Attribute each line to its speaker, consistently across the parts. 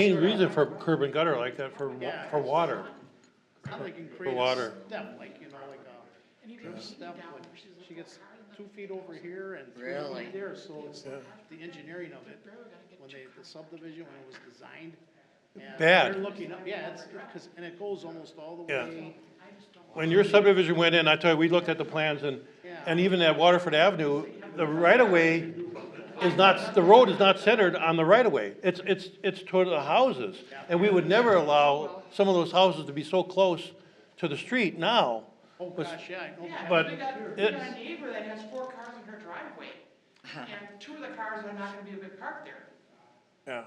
Speaker 1: Main reason for curb and gutter like that for, wa- for water.
Speaker 2: I'm thinking create
Speaker 1: water.
Speaker 2: a step, like, you know, like uh, a drip step, like she gets two feet over here and three
Speaker 3: Really?
Speaker 2: feet there, so it's the engineering of it. When they, the subdivision, when it was designed. and
Speaker 1: Bad.
Speaker 2: They're looking up, yeah, it's, cause, and it goes almost all the
Speaker 1: Yeah.
Speaker 2: way.
Speaker 1: When your subdivision went in, I tell you, we looked at the plans and,
Speaker 2: Yeah.
Speaker 1: and even at Waterford Avenue, the right-of-way is not, the road is not centered on the right-of-way. It's, it's, it's toward the houses. And we would never allow some of those houses to be so close to the street now.
Speaker 2: Oh,
Speaker 1: Was-
Speaker 2: gosh, yeah, I know.
Speaker 4: Yeah,
Speaker 1: But
Speaker 4: we got, we
Speaker 1: it-
Speaker 4: got a neighbor that has four cars in her driveway, and two of the cars are not gonna be able to park there,
Speaker 1: Yeah.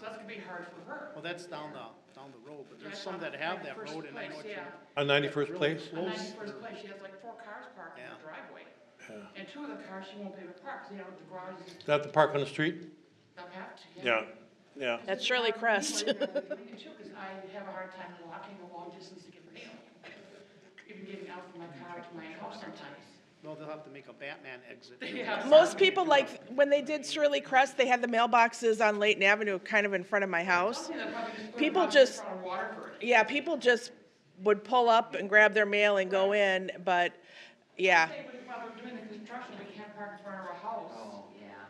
Speaker 4: so that's gonna be hard for her.
Speaker 2: Well, that's down the, down the road, but there's some that have that
Speaker 4: First
Speaker 2: road and I know
Speaker 4: place,
Speaker 2: what you.
Speaker 4: yeah.
Speaker 1: On ninety-first place?
Speaker 4: On
Speaker 2: Close.
Speaker 4: ninety-first place, she has like four cars parked in her
Speaker 2: Yeah.
Speaker 4: driveway, and two of the cars she won't be able to park, 'cause they don't have the garages,
Speaker 1: Is that the park on the street?
Speaker 4: they'll have to.
Speaker 1: Yeah, yeah.
Speaker 5: That's Shirley Crest.
Speaker 4: Because I have a hard time walking a long distance to get a mail, even getting out from my car to my house sometimes.
Speaker 2: No, they'll have to make a Batman exit.
Speaker 4: Yeah.
Speaker 5: Most people like, when they did Shirley Crest, they had the mailboxes on Layton Avenue, kind of in front of my house.
Speaker 4: Something that probably just put
Speaker 5: People
Speaker 4: them out
Speaker 5: just-
Speaker 4: in front of Waterford.
Speaker 5: Yeah, people just would pull up and grab their mail and go in, but, yeah.
Speaker 4: Say, but while we're doing the construction, we can't park in front of our house.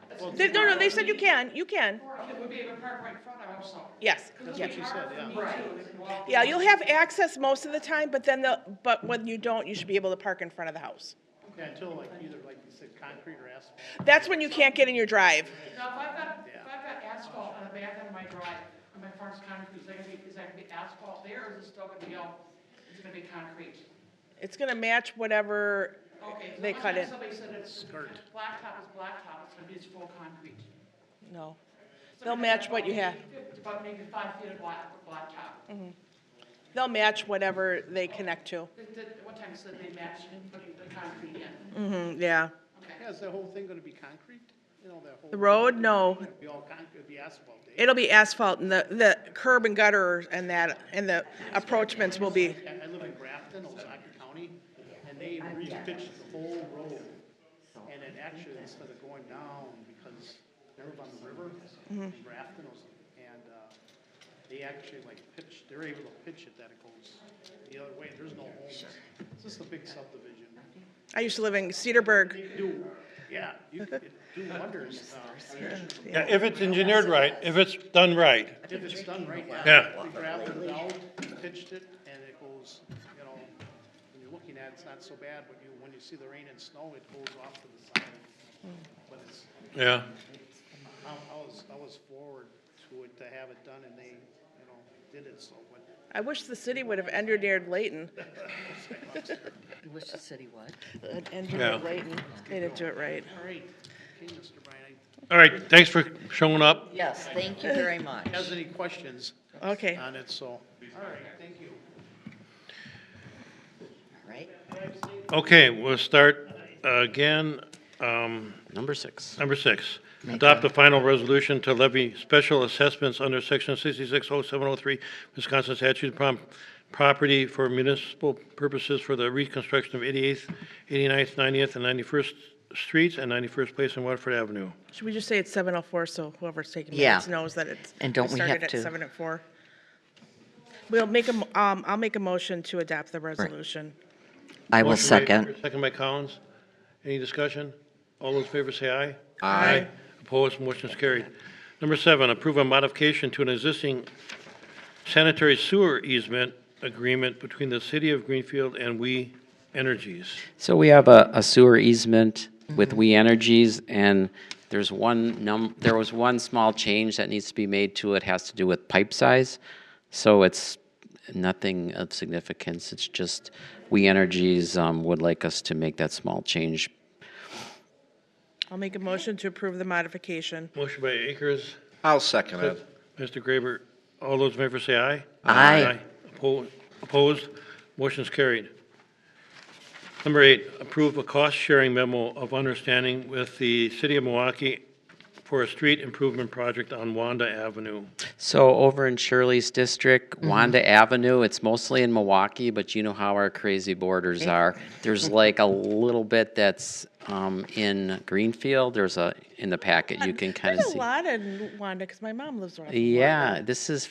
Speaker 4: That's
Speaker 5: They- No, no, they said you can, you can,
Speaker 4: Or it would be able to park right in front of our house. also.
Speaker 5: yes.
Speaker 4: Because
Speaker 5: yep.
Speaker 4: it'd be hard for me too, if you walk-
Speaker 5: Yeah, you'll have access most of the time, but then the, but when you don't, you should be able to park in front of the house.
Speaker 2: Yeah, until like either like you said, concrete or asphalt.
Speaker 5: That's when you can't get in your drive.
Speaker 4: Now, if I've got, if I've got asphalt on the back end of my drive, on my farm's concrete, is that gonna be, is that gonna be asphalt there, or is it still gonna be all, it's gonna be concrete?
Speaker 5: It's gonna match whatever,
Speaker 4: Okay. so
Speaker 5: They
Speaker 4: last
Speaker 5: cut
Speaker 4: time
Speaker 5: it.
Speaker 4: Somebody said it's, blacktop is blacktop, it's gonna be just full concrete.
Speaker 5: no.
Speaker 4: So
Speaker 5: They'll
Speaker 4: it's
Speaker 5: match
Speaker 4: about
Speaker 5: what you
Speaker 4: maybe
Speaker 5: have. Mm.
Speaker 4: fif- It's about maybe five feet of black, blacktop.
Speaker 5: They'll match whatever they connect to.
Speaker 4: The- the- One time it said they matched and put the concrete in,
Speaker 5: Mm-hmm, yeah.
Speaker 4: okay.
Speaker 2: Yeah, is the whole thing gonna be concrete? You know, that whole.
Speaker 5: The road, no.
Speaker 2: It'd be all concrete, it'd be asphalt, eh?
Speaker 5: It'll be asphalt and the, the curb and gutter and that, and the approachments will be,
Speaker 2: I I live in Grafton, Osaka County, and they repitched the whole road. And it actually, instead of going down, because they live on the river,
Speaker 5: Mm-hmm.
Speaker 2: in Grafton, Os- and uh, they actually like pitched, they're able to pitch it that it goes the other way, there's no homes. It's just a big subdivision.
Speaker 5: I used to live in Cedarburg.
Speaker 2: You could do, yeah, you could do wonders, uh,
Speaker 1: Yeah, if it's engineered right, if it's done right.
Speaker 2: if it's done right.
Speaker 1: Yeah.
Speaker 2: They grafted it out, pitched it, and it goes, you know, when you're looking at it, it's not so bad, but you, when you see the rain and snow, it goes off to the side. But it's,
Speaker 1: Yeah.
Speaker 2: I, I was, I was forward to it, to have it done, and they, you know, did it, so, but
Speaker 5: I wish the city would have engineered Layton.
Speaker 3: You wish the city would.
Speaker 1: Yeah.
Speaker 5: Engineered Layton. They didn't do it right.
Speaker 2: All right, okay, Mr. Bryan, I-
Speaker 1: All right, thanks for showing up.
Speaker 3: Yes, thank you very much.
Speaker 2: has any questions
Speaker 5: Okay.
Speaker 2: on it, so. All right, thank you.
Speaker 3: Right?
Speaker 1: Okay, we'll start uh, again, um,
Speaker 6: Number six.
Speaker 1: number six. Adopt the final resolution to levy special assessments under section sixty-six oh seven oh three Wisconsin statute prom- property for municipal purposes for the reconstruction of 88th, 89th, 90th, and ninety-first streets and ninety-first place in Waterford Avenue.
Speaker 5: Should we just say it's seven oh four, so whoever's taking
Speaker 3: Yeah.
Speaker 5: minutes knows that it's.
Speaker 3: And don't
Speaker 5: it
Speaker 3: we
Speaker 5: started
Speaker 3: have
Speaker 5: at
Speaker 3: to-
Speaker 5: Seven at four. We'll make a, m- um, I'll make a motion to adopt the resolution.
Speaker 3: I will
Speaker 1: Motion by-
Speaker 3: second.
Speaker 1: Second by Collins. Any discussion? All those in favor say aye.
Speaker 5: Aye. Aye.
Speaker 1: Opposed, motion is carried. Number seven, approve a modification to an existing sanitary sewer easement agreement between the City of Greenfield and We Energies.
Speaker 6: So we have a a sewer easement with We Energies, and there's one num, there was one small change that needs to be made to it, has to do with pipe size. So it's nothing of significance, it's just We Energies um, would like us to make that small change.
Speaker 5: I'll make a motion to approve the modification.
Speaker 1: Motion by Akers,
Speaker 7: I'll second it.
Speaker 1: Mr. Graber. All those in favor say aye.
Speaker 3: Aye.
Speaker 1: Oppo- Opposed, motion is carried. Number eight, approve a cost-sharing memo of understanding with the City of Milwaukee for a street improvement project on Wanda Avenue.
Speaker 6: So over in Shirley's district, Wanda Avenue, it's mostly in Milwaukee, but you know how our crazy borders are. There's like a little bit that's um, in Greenfield. There's a in the packet you can kind of
Speaker 5: There's a
Speaker 6: see.
Speaker 5: lot in Wanda because my mom lives around.
Speaker 6: Yeah, this is